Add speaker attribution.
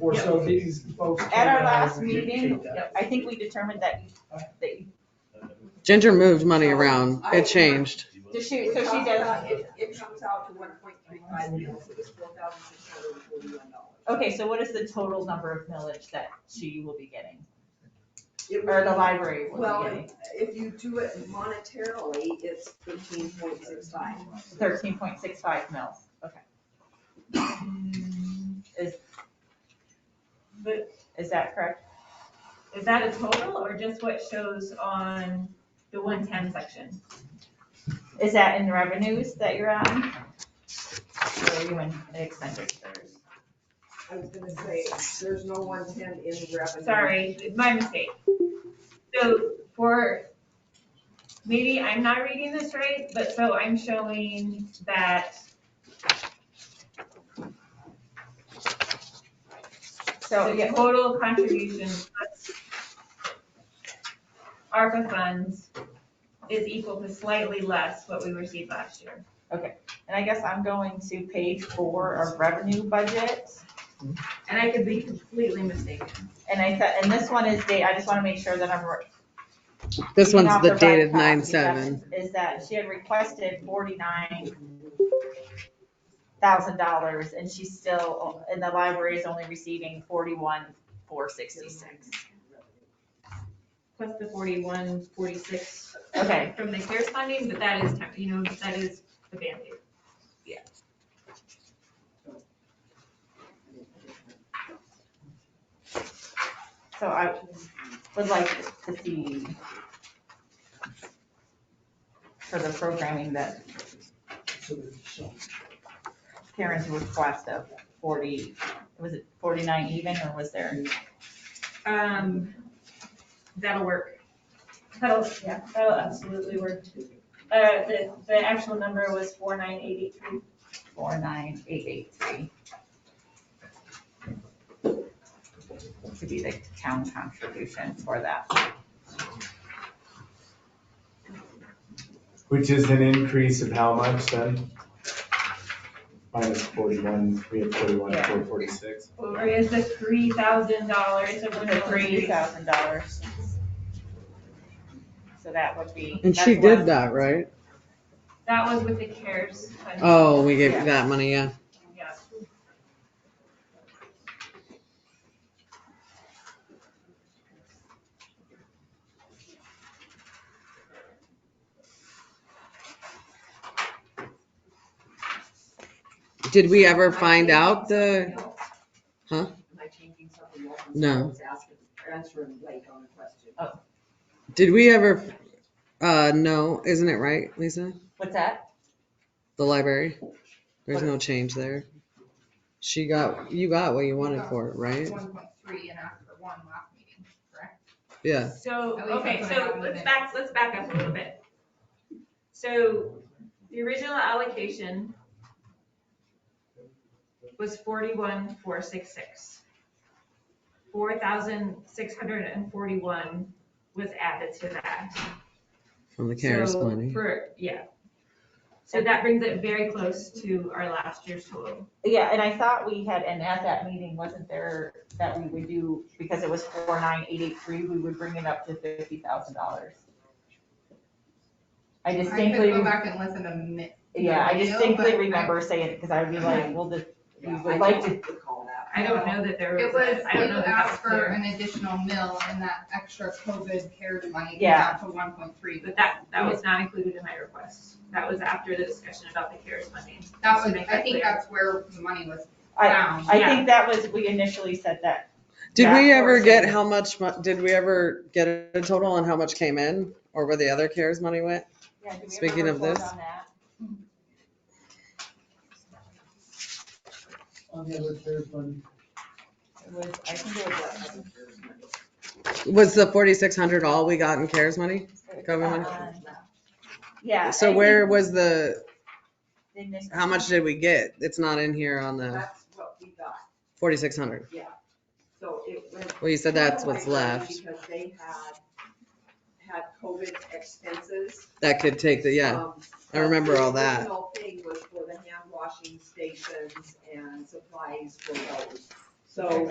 Speaker 1: or so
Speaker 2: Yep.
Speaker 1: these folks.
Speaker 2: At our
Speaker 1: can, uh,
Speaker 2: last
Speaker 1: dictate
Speaker 2: meeting,
Speaker 1: that.
Speaker 2: I think we determined that, you- that, you-
Speaker 3: Ginger moved money around. It changed.
Speaker 2: does she, so she does,
Speaker 4: It, it comes out to one point three five million, so it's four thousand six hundred and forty-one dollars.
Speaker 2: okay, so what is the total number of millage that she will be getting? Or the library will be
Speaker 4: Well,
Speaker 2: getting?
Speaker 4: if you do it monetarily, it's fifteen point six five.
Speaker 2: Thirteen point six five mils, okay.
Speaker 5: Mm.
Speaker 2: Is,
Speaker 5: But
Speaker 2: is that correct?
Speaker 5: is that a total or just what shows on the one ten section?
Speaker 2: Is that in revenues that you're on? Or are you in expenditures?
Speaker 4: I was gonna say, there's no one ten in revenue.
Speaker 5: Sorry, it's my mistake. So for, maybe I'm not reading this right, but so I'm showing that,
Speaker 2: So,
Speaker 5: the
Speaker 2: yeah,
Speaker 5: total contribution plus ARPA funds is equal to slightly less what we received last year.
Speaker 2: and I guess I'm going to page four of revenue budget.
Speaker 5: And I could be completely mistaken.
Speaker 2: And I said, and this one is date, I just want to make sure that I'm
Speaker 3: This
Speaker 2: reading
Speaker 3: one's
Speaker 2: off
Speaker 3: the
Speaker 2: right
Speaker 3: dated
Speaker 2: copy.
Speaker 3: nine seven.
Speaker 2: That's- Is that she had requested forty-nine thousand dollars and she's still, and the library is only receiving forty-one, four sixty-six.
Speaker 5: Plus the forty-one, forty-six
Speaker 2: Okay,
Speaker 5: from the CARES funding, but that is, temp- you know, that is the Band-Aid.
Speaker 2: so I would like to see for the programming that
Speaker 1: So that- so-
Speaker 2: Karen's request of forty, was it forty-nine even or was there?
Speaker 5: Um, that'll work. That'll, yeah, that'll absolutely work. Uh, the, the actual number was four nine eight eight three.
Speaker 2: four nine eight eight three. To be the town contribution for that.
Speaker 6: Which is an increase of how much then? Minus forty-one, we have forty-one,
Speaker 2: Yeah.
Speaker 6: four forty-six.
Speaker 5: Or is the three thousand dollars of
Speaker 2: The
Speaker 5: the
Speaker 2: three
Speaker 5: three?
Speaker 2: thousand dollars. So that would be.
Speaker 3: And she
Speaker 2: that's
Speaker 3: did
Speaker 2: one-
Speaker 3: that, right?
Speaker 5: That was with the CARES funding.
Speaker 3: Oh, we gave
Speaker 2: Yeah.
Speaker 3: you that money, yeah.
Speaker 5: Yeah.
Speaker 3: Did we ever find out the, Huh?
Speaker 4: Am I changing something else?
Speaker 3: No.
Speaker 4: I was asking, answering late on a question.
Speaker 2: Oh,
Speaker 3: did we ever, uh, no, isn't it right, Lisa?
Speaker 2: What's that?
Speaker 3: The library? There's
Speaker 2: What?
Speaker 3: no change there. She got, you got what you wanted for it, right?
Speaker 7: One point three and after one last meeting, correct?
Speaker 3: Yeah.
Speaker 5: So,
Speaker 7: At least
Speaker 5: okay,
Speaker 7: that's what I
Speaker 5: so
Speaker 7: have in
Speaker 5: let's
Speaker 7: it.
Speaker 5: back, let's back up a little bit. So the original allocation was forty-one, four, six, six. Four thousand, six hundred and forty-one was added to that.
Speaker 3: From the CARES
Speaker 5: So
Speaker 3: money.
Speaker 5: For, yeah. So that brings it very close to our last year's total.
Speaker 2: Yeah, and I thought we had, and at that meeting, wasn't there that we would do, because it was four nine eight eight three, we would bring it up to fifty thousand dollars. I
Speaker 7: I
Speaker 2: distinctly.
Speaker 7: could go
Speaker 2: remember-
Speaker 7: back and listen to mi-
Speaker 2: Yeah, I
Speaker 7: video,
Speaker 2: distinctly
Speaker 7: but I-
Speaker 2: remember saying it, because I would be like, well, the, we
Speaker 4: Yeah,
Speaker 2: would
Speaker 4: I
Speaker 2: like to,
Speaker 4: don't recall that.
Speaker 5: I don't know that there was.
Speaker 7: it was,
Speaker 5: I
Speaker 7: you
Speaker 5: don't know that that
Speaker 7: asked
Speaker 5: was clear,
Speaker 7: for an additional mill and that extra COVID CARES money came
Speaker 2: Yeah.
Speaker 7: out to one point three.
Speaker 5: But that, that was not included in my request. That was after the discussion about the CARES funding.
Speaker 7: That
Speaker 5: Just to
Speaker 7: was,
Speaker 5: make
Speaker 7: I think
Speaker 5: clear.
Speaker 7: that's where the money was
Speaker 2: I,
Speaker 7: found.
Speaker 2: I think that was, we initially said that.
Speaker 3: Did we
Speaker 2: that
Speaker 3: ever get
Speaker 2: portion.
Speaker 3: how much, mu- did we ever get a total on how much came in or where the other CARES money went?
Speaker 2: Yeah, do we ever
Speaker 3: Speaking of
Speaker 2: report
Speaker 3: this.
Speaker 2: on that?
Speaker 1: On the other third one,
Speaker 2: It was, I think it was.
Speaker 3: Was the 4,600 all we got in CARES money?
Speaker 2: what?
Speaker 3: Government.
Speaker 2: Uh, Yeah. I
Speaker 3: So
Speaker 2: think
Speaker 3: where was the,
Speaker 2: they missed-
Speaker 3: How much did we get? It's not in here on the
Speaker 4: That's what we got,
Speaker 3: forty-six hundred.
Speaker 4: so it went
Speaker 3: Well, you said that's what's left.
Speaker 4: Because they had, had COVID expenses.
Speaker 3: That could take the, yeah.
Speaker 4: Um,
Speaker 3: I remember all
Speaker 4: the
Speaker 3: that.
Speaker 4: original thing was for the hand washing stations and supplies for those. So